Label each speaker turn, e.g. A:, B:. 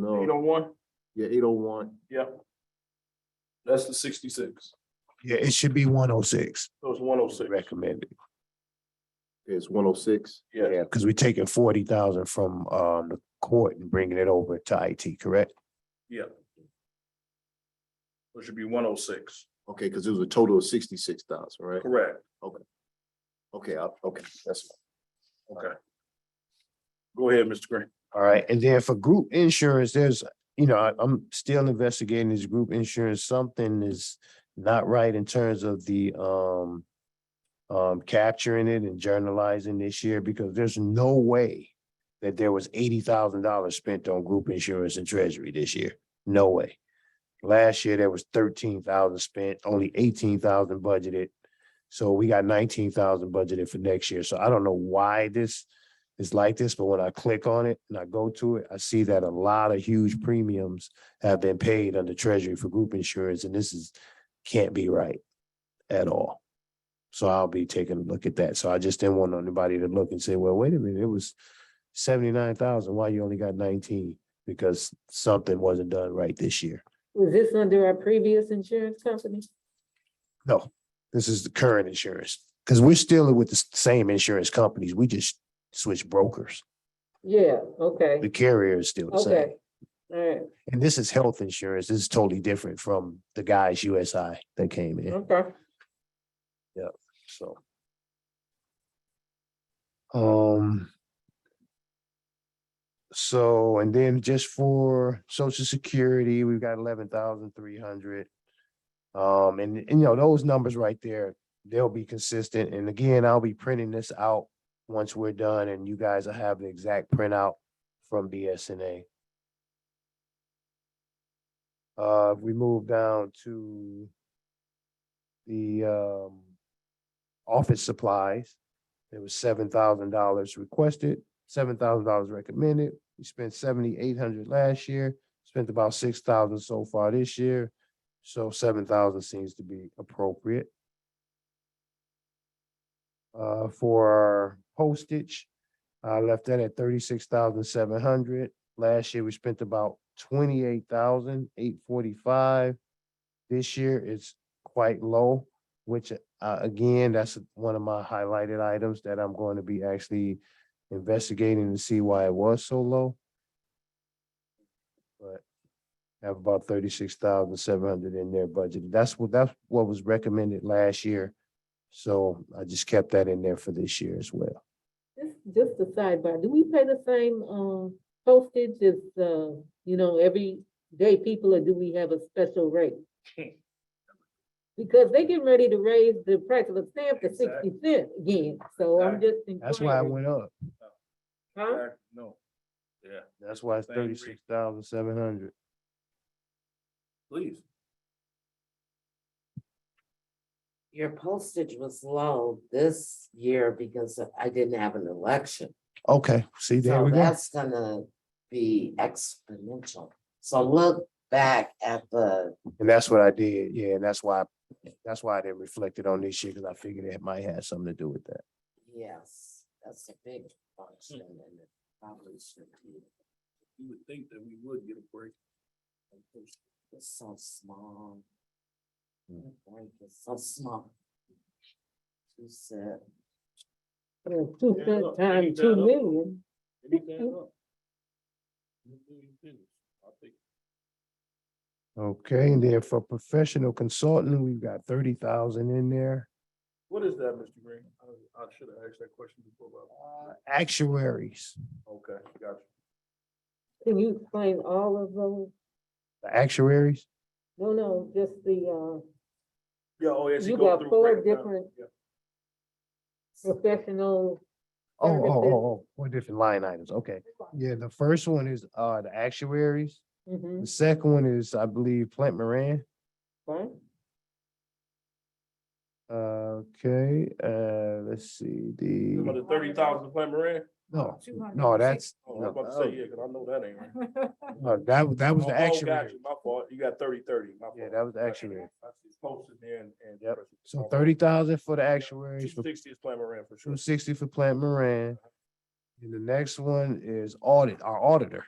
A: no,
B: Eight oh one,
A: yeah, eight oh one.
B: that's the sixty-six,
C: Yeah, it should be one oh six,
B: so it's one oh six.
C: recommended,
A: It's one oh six.
B: Yeah,
C: because we're taking forty thousand from um the court and bringing it over to IT, correct?
B: it should be one oh six,
A: Okay, because it was a total of sixty-six thousand, right?
B: correct,
A: Okay, I- okay, that's fine.
B: okay. Go ahead, Mr. Green.
C: All right, and then for group insurance, there's, you know, I- I'm still investigating this group insurance, something is not right in terms of the um. Um, capturing it and journalizing this year, because there's no way that there was eighty thousand dollars spent on group insurance and treasury this year, no way. Last year, there was thirteen thousand spent, only eighteen thousand budgeted. So we got nineteen thousand budgeted for next year, so I don't know why this is like this, but when I click on it and I go to it, I see that a lot of huge premiums have been paid under treasury for group insurance, and this is, can't be right at all. So I'll be taking a look at that. So I just didn't want anybody to look and say, well, wait a minute, it was seventy-nine thousand, why you only got nineteen? Because something wasn't done right this year.
D: Was this under our previous insurance company?
C: No, this is the current insurance, because we're still with the s- same insurance companies, we just switch brokers.
D: Yeah, okay,
C: The carrier is still the same.
D: okay. All right,
C: And this is health insurance. This is totally different from the guys USI that came in,
D: okay.
C: so. Um. So, and then just for social security, we've got eleven thousand three hundred. Um, and, and you know, those numbers right there, they'll be consistent. And again, I'll be printing this out once we're done and you guys will have the exact printout from BSNA. Uh, if we move down to the, um, office supplies. There was seven thousand dollars requested, seven thousand dollars recommended. We spent seventy-eight hundred last year, spent about six thousand so far this year. So seven thousand seems to be appropriate. Uh, for our postage, I left that at thirty-six thousand seven hundred. Last year, we spent about twenty-eight thousand eight forty-five. This year, it's quite low, which uh, again, that's one of my highlighted items that I'm going to be actually investigating to see why it was so low. But I have about thirty-six thousand seven hundred in there budgeted. That's what, that's what was recommended last year. So I just kept that in there for this year as well.
D: Just, just a sidebar, do we pay the same, um, postage as, uh, you know, every day people, or do we have a special rate? Because they getting ready to raise the price of a stamp to sixty cent again, so I'm just.
C: That's why it
D: inquiring,
C: went up.
D: huh?
B: No. Yeah,
C: That's why it's
B: Same reason.
C: thirty-six thousand seven hundred.
B: please.
E: Your postage was low this year because I didn't have an election.
C: Okay, see, there
E: So
C: we go.
E: that's gonna be exponential. So look back at the,
C: And that's what I did. Yeah, and that's why, that's why I didn't reflect it on this year because I figured it might have something to do with that.
E: yes, that's a big function and it probably should be
B: You would think that we would get a break.
E: it's so small. The break is so small. Too sad.
D: Yeah, Two
B: Yeah,
D: cent
B: look,
D: times
B: ain't
D: two
B: that up?
D: million,
B: Anything up? Anything you finish, I think.
C: Okay, and then for professional consulting, we've got thirty thousand in there.
B: What is that, Mr. Green? I, I should have asked that question before,
C: Uh, Actuaries,
B: but, okay, gotcha.
D: can you explain all of those?
C: the actuaries,
D: No, no, just the, uh,
B: Yeah, oh, yes. he
D: You
B: go
D: got
B: through
D: four
B: breakdown.
D: different-
B: Yeah.
D: professional
C: oh, oh,
D: Services.
C: oh, oh, four different line items, okay. Yeah, the first one is uh the actuaries,
D: Mm-hmm,
C: the second one is, I believe, Plant Moran.
D: right?
C: Uh, Okay, uh, let's see,
B: Some of
C: the,
B: the thirty thousand Plant Moran?
C: no, no, that's,
B: Oh, I was about to say, yeah, cause I know that ain't right.
C: no, that, that was the
B: Oh, oh, got
C: actuary.
B: you, My fault, you got thirty, thirty, my fault.
C: Yeah, that was the
B: Okay.
C: actuary.
B: I see it's Posted there and. and-
C: Yep. So thirty thousand for the
B: Two
C: actuaries, for
B: sixty is Plant Moran for sure.
C: two sixty for Plant Moran. And the next one is audit, our auditor.